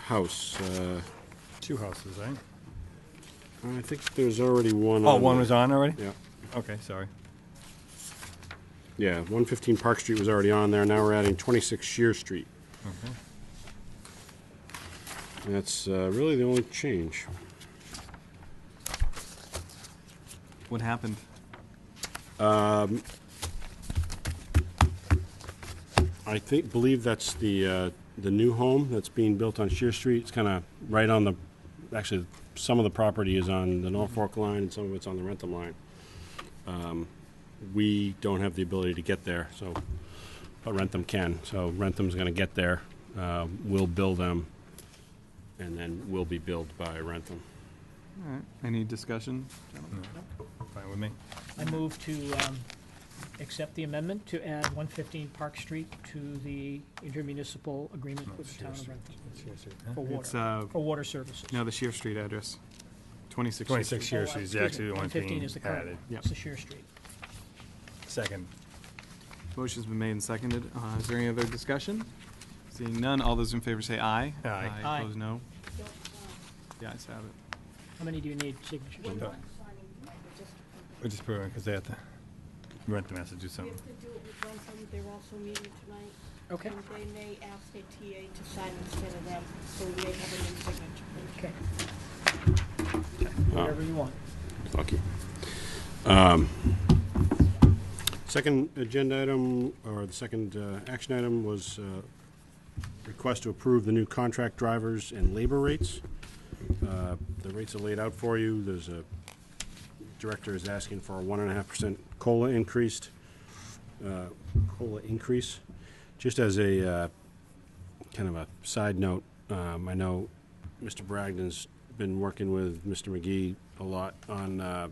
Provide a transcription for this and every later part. house. Uh, Two houses, right? I think there's already one. Oh, on one there. was on already? Yeah, Okay, sorry. yeah. One fifteen Park Street was already on there. Now we're adding twenty-six Shear Street. Mm-hmm. And That's uh, really the only change. What happened? I think believe that's the uh, the new home that's being built on Shear Street. It's kind of right on the. Actually, some of the property is on the Norfolk line, and some of it's on the Rentham line. Um, we don't have the ability to get there, so but Rentham can. So Rentham's going to get there. Uh, we'll bill them, and then we'll be billed by Rentham. All right. Any discussion? gentlemen? Fine with me. I move to um, accept the amendment to add 115 Park Street to the intermunicipal agreement with the town of Rentham for It's, water, uh, for water services. no, the Shear Street address. 26 Shear Street. Twenty-six Shear Oh, Street is excuse me, actually the one 115 being is the current added. one. Yep. It's the Shear Street. Second. Motion's been made and seconded. Uh, Is there any other discussion? Seeing none, all those in favor say aye. Aye. Aye. Opposed, no. The ayes have it. How many do you need signatures? One done. We're just proving, because they have to, Rentham has to do We something. have to do it with Ransom, they're also meeting tonight. Okay, And they may ask their TA to sign instead of them, so we may have an signature. okay. Whatever you want. Lucky. Um, Second agenda item, or the second uh, action item was uh, request to approve the new contract drivers and labor rates. Uh, The rates are laid out for you. There's a, director is asking for a one and a half percent COLA increased, uh, COLA increase. Just as a, uh, kind of a side note, um, I know Mr. Bragdon's been working with Mr. McGee a lot on uh,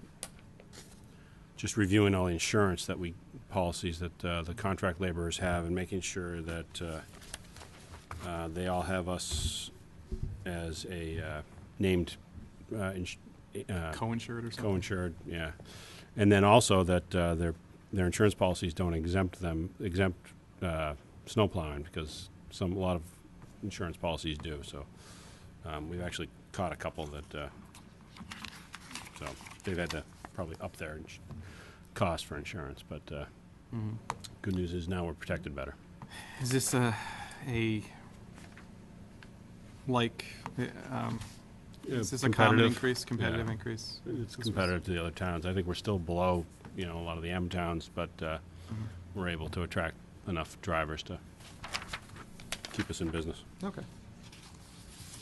just reviewing all the insurance that we policies that uh, the contract laborers have and making sure that uh, uh, they all have us as a uh, named uh, ins- uh, Co-insured or something? co-insured, yeah. And then also that uh, their their insurance policies don't exempt them exempt uh, snow plowing because some a lot of insurance policies do. So um, we've actually caught a couple that uh, so they've had to probably up their ins- cost for insurance. But uh, good news is now we're protected better. Mm-hmm. Is this a, a, like, uh, um, is this a common Competitive. increase, competitive Yeah. increase? It's competitive to the other towns. I think we're still below, you know, a lot of the M towns, but uh, Mm-hmm. we're able to attract enough drivers to keep us in business. Okay.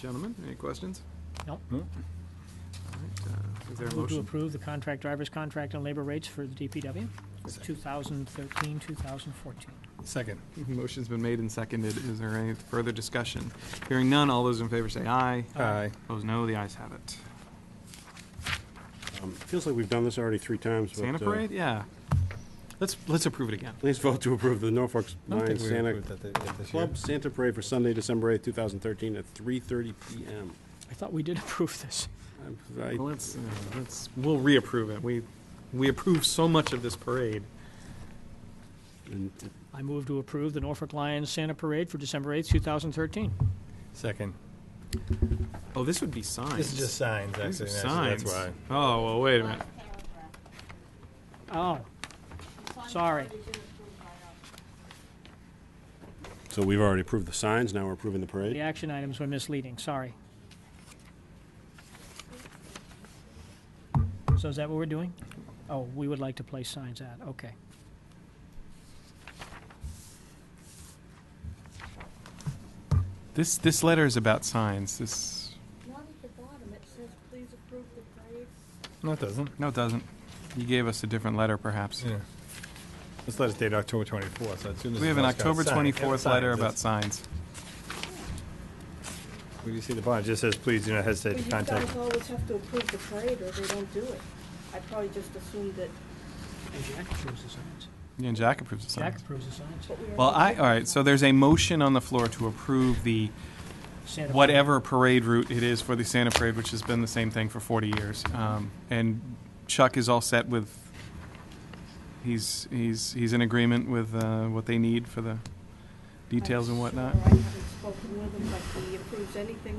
Gentlemen, any questions? No. No. All right, uh, Is there a Move to motion? approve the contract driver's contract and labor rates for the DPW for 2013, 2014. Second. Motion's been made and seconded. Is there any further discussion? Hearing none, all those in favor say aye. Aye. Opposed, no. The ayes have it. Um, Feels like we've done this already three times. but, Santa uh, parade? Yeah. Let's, let's approve it again. Please vote to approve the Norfolk I don't Lions think we Santa approved that thi- that this year. Club Santa Parade for Sunday, December 8th, 2013 at 3:30 PM. I thought we did approve this. I'm- I- Well, let's, uh, let's, we'll reapprove it. We, we approve so much of this parade. and I move to approve the Norfolk Lions Santa Parade for December 8th, 2013. Second. Oh, this would be signs. This is just signs, These are actually. signs. That's why. Oh, well, wait a minute. Last paragraph. Oh, It's on the Sorry. front, it's in approved by us. So we've already approved the signs, now we're approving the the parade? action items were misleading, sorry. So is that what we're doing? Oh, we would like to place signs at, okay. This, this letter is about signs. This, Not at the bottom, it says, please approve the parade. No, it doesn't. no, it doesn't. You gave us a different letter, perhaps. Yeah. This letter's dated October twenty-fourth, so as soon as. We have it's an all got October signed, twenty-fourth signed, letter it's- about signs. When you see the bond, it just says, please do not But hesitate you to contact. guys always have to approve the parade or they don't do it. I probably just assumed that, And Jack approves the signs. Yeah, and Jack approves of Jack signs. approves the signs. but we were. Well, I, all right, so there's a motion on the floor to approve the Santa Parade. whatever parade route it is for the Santa Parade, which has been the same thing for 40 years. Um, and Chuck is all set with. He's he's he's in agreement with uh, what they need for the details and whatnot. I'm sure I haven't spoken with him, but he approves anything